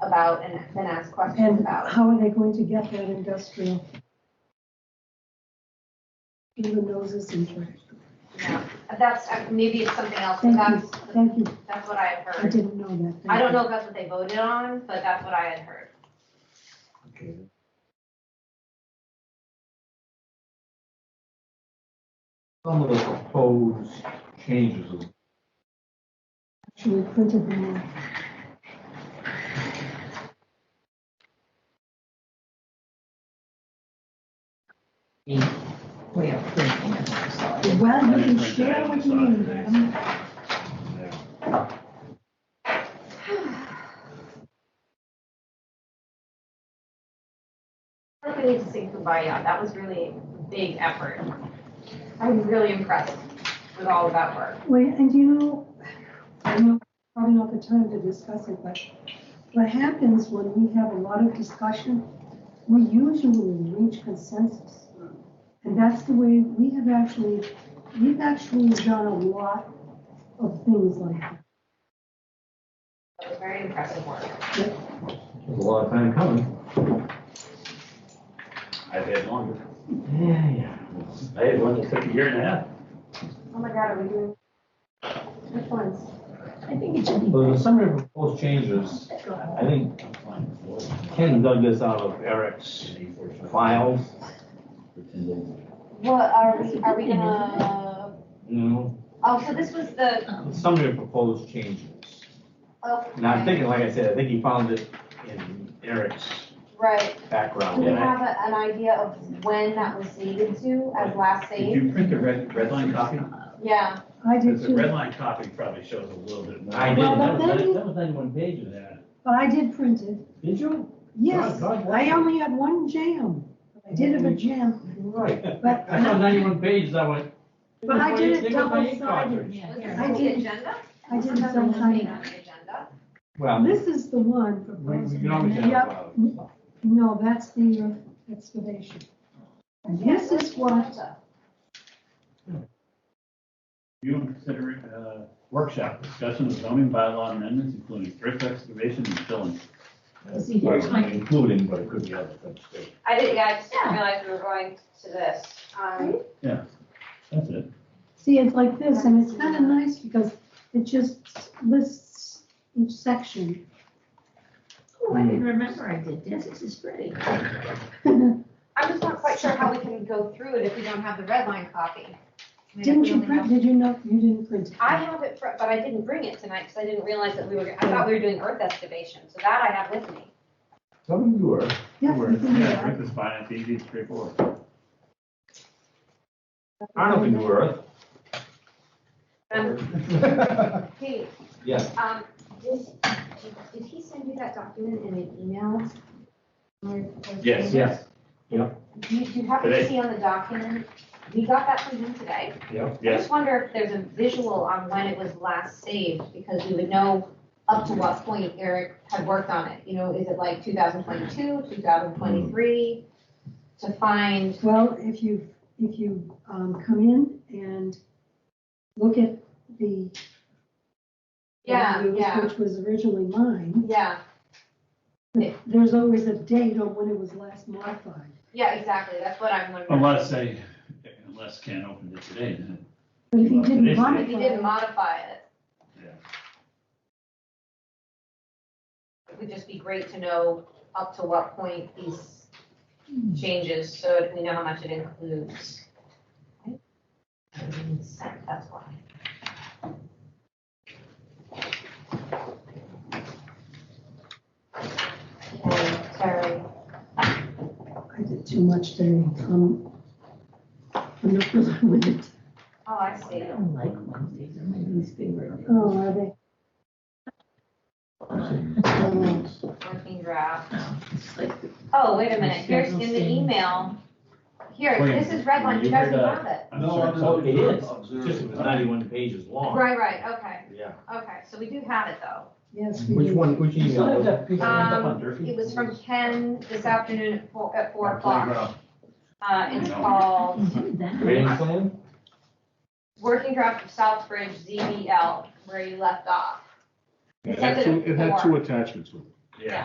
about and then ask questions And about. how are they going to get that industrial? Through the noses and through. Yeah. That's, uh, maybe it's something else, but Thank you, that's, thank you. that's what I had I heard. didn't know that. Thank I don't you. know if that's what they voted on, but that's what I had heard. Okay. Some of the proposed changes, Actually printed them out. way of thinking, I'm sorry. Well, I you didn't can print that share out what you inside need. Um, today. yeah. I think we need to sing Kumbaya. That was really a big effort. I was really impressed with all of that work. Wait, and you know, I know, probably not the time to discuss it, but what happens when we have a lot of discussion, we usually reach consensus. And that's the way, we have actually, we've actually done a lot of things like that. That was very impressive work. It was a lot of time coming. I've had longer. Yeah, yeah. I had one that took a year and a half. Oh my God, are we doing? Which ones? I think it should be. So the summary of proposed changes, I think Ken dug this out of Eric's files, What are we, are we gonna, you know, oh, so this was the, the summary of proposed changes. oh. And I'm thinking, like I said, I think he found it in Eric's Right. Do background. we and I- have a- an idea of when that was dated to as last Did saved? you print the red, red line copy? Yeah, I did Because the red too, line copy probably shows a little bit more. I Well, but didn't. That was- then- that was only one page of that. but I did print it. Did you? Yes, God, God. I only had one jam. I did have a jam, You're Right. but, I saw ninety-one pages, I went. but I did it They got my ink double-sided. cartridge. Yeah, was here. this I on the did- agenda? I did Remember some this time being ago. on the agenda? Well, This is the one we, we proposed. can always have. Yep. uh, No, that's the uh, excavation. And this is what, You and consider uh, workshop discussion of zoning bylaw amendments, including thrift excavation and filling. See, here's my- Including, but it could be other things too. I did, yeah, I just didn't realize we were going to this. Um, That's it. see, it's like this, and it's kind of nice because it just lists each section. Oh, I didn't remember I did this. This is pretty. Didn't I'm just not quite sure how we can go through it if we don't have the red line copy. I mean, if we you only print, have- did you know, you didn't print it? I have it, fr- but I didn't bring it tonight because I didn't realize that we were, I thought we were doing earth excavation, so that I have with me. Some of you are. Yeah, Where- you can do Yeah, that. Rick is fine, it's easy, straightforward. Arnold can do Earth. Um, Pete, Yes. um, did, did- did he send you that document in an email? Or- or- Yes, yes, Do you, do you happen to Today. see on the document, we got that from him today? Yep. I yes. just wonder if there's a visual on when it was last saved, because we would know up to what point Eric had worked on it. You know, is it like 2022, 2023? To find, Well, if you, if you um, come in and look at the. yeah, reviews, yeah, Which was originally mine, yeah, there's always a date on when it was last modified. yeah, exactly. That's what I'm wondering. Unless they, unless Ken opened it today, then. But if you Well, it didn't is- modify. If you didn't modify it. Yeah. It would just be great to know up to what point these changes, so that we know how much it includes. That's why. Okay, Sorry, I did too much today. Um, I'm not really with it. oh, I I see. don't like Wednesdays. They're my least favorite. Oh, are they? Oh, Working draft. It's like Oh, wait a minute, here's in the email, here, this is red line, you guys have it. I'm sorry, Oh, so- it is, just it was ninety-one pages long. Right, right, okay, Yeah. okay, so we do have it though. Yes, we Which do. one, which You still have email? that piece of up on Um, Durfee? It was from Ken this afternoon at four, at four o'clock. Playground. Uh, it's called did oh, that. Rating plan? Working Draft of Southbridge ZBL, where you left off. It had two, it had two attachments with it.